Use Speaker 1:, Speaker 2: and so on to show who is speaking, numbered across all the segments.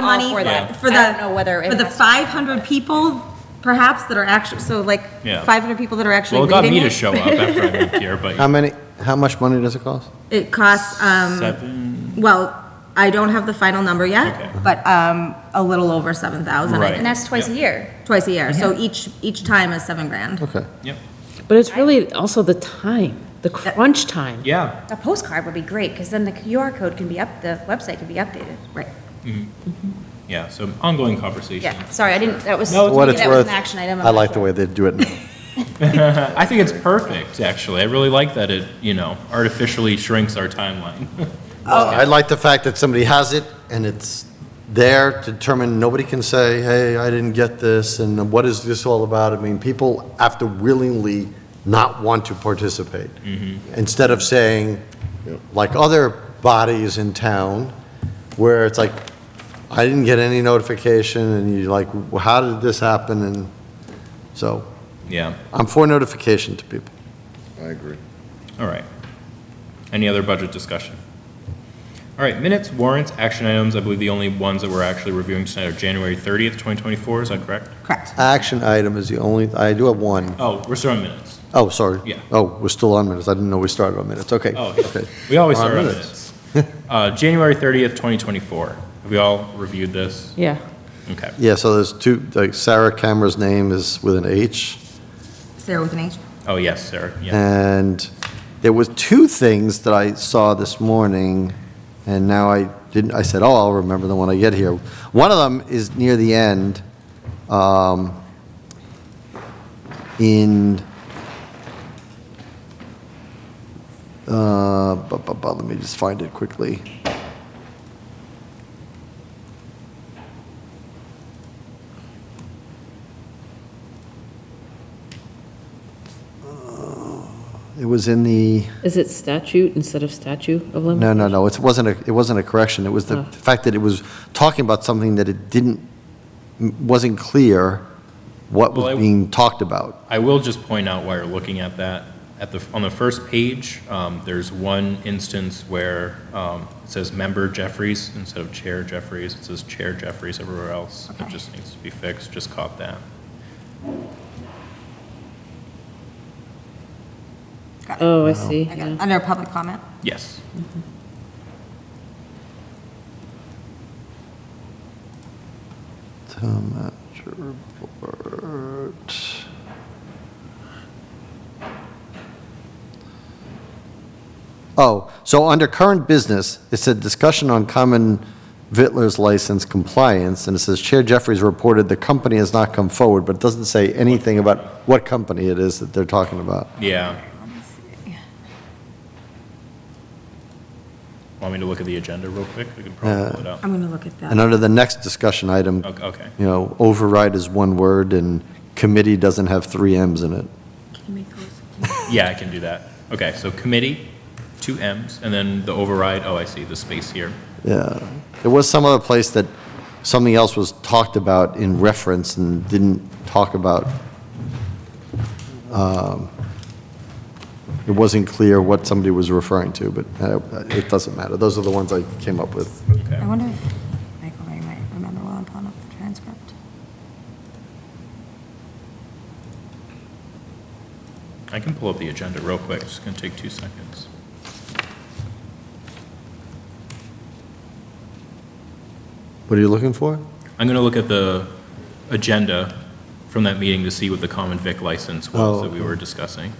Speaker 1: money
Speaker 2: for that.
Speaker 1: for
Speaker 2: I
Speaker 1: the.
Speaker 2: don't know whether it
Speaker 1: For the
Speaker 2: has-
Speaker 1: five hundred people perhaps that are actually, so like,
Speaker 3: Yeah.
Speaker 1: five hundred people that are actually
Speaker 3: Well, it got
Speaker 1: reading
Speaker 3: me to
Speaker 1: it.
Speaker 3: show up after I moved here,
Speaker 4: How
Speaker 3: but
Speaker 4: many, how much money does it cost?
Speaker 1: It costs, um,
Speaker 3: seven,
Speaker 1: well, I don't have the final number
Speaker 3: Okay.
Speaker 1: yet, but, um, a little over seven thousand.
Speaker 3: Right.
Speaker 2: And that's twice a year.
Speaker 1: Twice a year, so each, each time is seven grand.
Speaker 2: Oh,
Speaker 4: Okay.
Speaker 3: yep,
Speaker 5: But it's really also the time, the crunch time.
Speaker 3: yeah,
Speaker 2: A postcard would be great, because then the QR code can be up, the website can be updated.
Speaker 1: Right.
Speaker 3: yeah, so ongoing conversation.
Speaker 2: Yeah, sorry, I didn't, that was,
Speaker 3: No, it's
Speaker 4: What it's
Speaker 2: that was
Speaker 4: worth,
Speaker 2: an action item. I'm
Speaker 4: I
Speaker 2: not
Speaker 4: like the
Speaker 2: sure.
Speaker 4: way they do it now. Uh,
Speaker 3: I think it's perfect, actually. I really like that it, you know, artificially shrinks our timeline.
Speaker 4: I like the fact that somebody has it and it's there to determine, nobody can say, hey, I didn't get this, and what is this all about? I mean, people have to willingly not want to participate.
Speaker 2: Mm-hmm.
Speaker 4: Instead of saying, like other bodies in town, where it's like, I didn't get any notification, and you're like, "Well, how did this happen? And so,
Speaker 3: Yeah,
Speaker 4: I'm for notification to people.
Speaker 6: I agree.
Speaker 3: all right. Any other budget discussion? All right, minutes, warrants, action items, I believe the only ones that we're actually reviewing tonight are January 30th, 2024, is that correct?
Speaker 1: Correct.
Speaker 4: Action item is the only, I do have one.
Speaker 3: Oh, we're still on minutes.
Speaker 4: Oh, sorry.
Speaker 3: Yeah.
Speaker 4: Oh, we're still on minutes. I didn't know we started on minutes. Okay.
Speaker 3: Oh,
Speaker 4: Okay.
Speaker 3: yeah. we always
Speaker 4: We're on
Speaker 3: start on
Speaker 4: minutes.
Speaker 3: minutes. Uh, January 30th, 2024. Have we all reviewed this?
Speaker 5: Yeah.
Speaker 3: Okay.
Speaker 4: Yeah, so there's two, like Sarah Cameron's name is with an H.
Speaker 1: Sarah with an H.
Speaker 3: Oh, yes, Sarah, yeah.
Speaker 4: And there was two things that I saw this morning, and now I didn't, I said, oh, I'll remember them when I get here. One of them is near the end, um, in, uh, bu- bu- bu- let me just find it quickly. It was in the.
Speaker 5: Is it statute instead of statute of limitations?
Speaker 4: No, no, no, it wasn't a, it wasn't a correction, it was the
Speaker 5: Oh.
Speaker 4: fact that it was talking about something that it didn't, wasn't clear what
Speaker 3: Well,
Speaker 4: was
Speaker 3: I-
Speaker 4: being talked about.
Speaker 3: I will just point out while you're looking at that, at the, on the first page, um, there's one instance where um, it says member Jeffries instead of chair Jeffries. It says chair Jeffries everywhere else. It just needs to be fixed, just caught that.
Speaker 5: Oh, I see.
Speaker 1: I
Speaker 5: yeah.
Speaker 1: got- Under public comment.
Speaker 3: Yes.
Speaker 4: Town manager report. Oh, so under current business, it said discussion on common Vittler's license compliance, and it says Chair Jeffries reported the company has not come forward, but it doesn't say anything about what company it is that they're talking about.
Speaker 3: Yeah. Want me to look at the agenda real quick? We can probably pull it up.
Speaker 1: I'm gonna look at that.
Speaker 4: And under the next discussion item,
Speaker 3: Ok- Okay.
Speaker 4: you know, override is one word, and committee doesn't have three Ms in it.
Speaker 1: Can you make those?
Speaker 3: Yeah, I can do that. Okay, so committee, two Ms, and then the override, oh, I see, the space here.
Speaker 4: Yeah. There was some other place that something else was talked about in reference and didn't talk about, um, it wasn't clear what somebody was referring to, but uh, it doesn't matter. Those are the ones I came up with.
Speaker 3: Okay.
Speaker 1: I wonder if Michael Ray might remember while I'm pulling up the transcript.
Speaker 3: I can pull up the agenda real quick, it's gonna take two seconds.
Speaker 4: What are you looking for?
Speaker 3: I'm gonna look at the agenda from that meeting to see what the common vic license was
Speaker 4: Oh,
Speaker 3: that we
Speaker 4: okay.
Speaker 3: were discussing.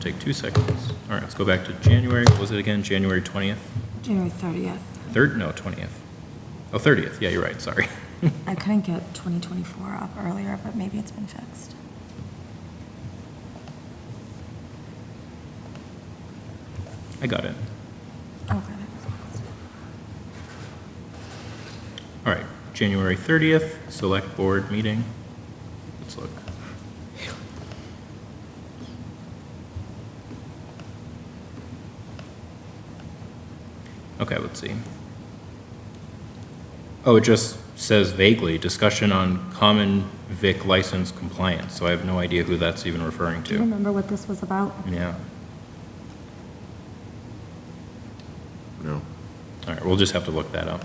Speaker 3: Take two seconds. All right, let's go back to January, What was it again, January 20th?
Speaker 1: January thirtieth.
Speaker 3: Third, no, 20th. Oh, 30th, yeah, you're right, sorry.
Speaker 1: I couldn't get twenty twenty-four up earlier, but maybe it's been fixed.
Speaker 3: I got it.
Speaker 1: Okay.
Speaker 3: All right, January 30th, select board meeting. Let's look. Okay, let's see. Oh, it just says vaguely, discussion on common vic license compliance, so I have no idea who that's even referring
Speaker 1: Do you
Speaker 3: to.
Speaker 1: remember what this was about?
Speaker 3: Yeah,
Speaker 6: No.
Speaker 3: all right, we'll just have to look that up.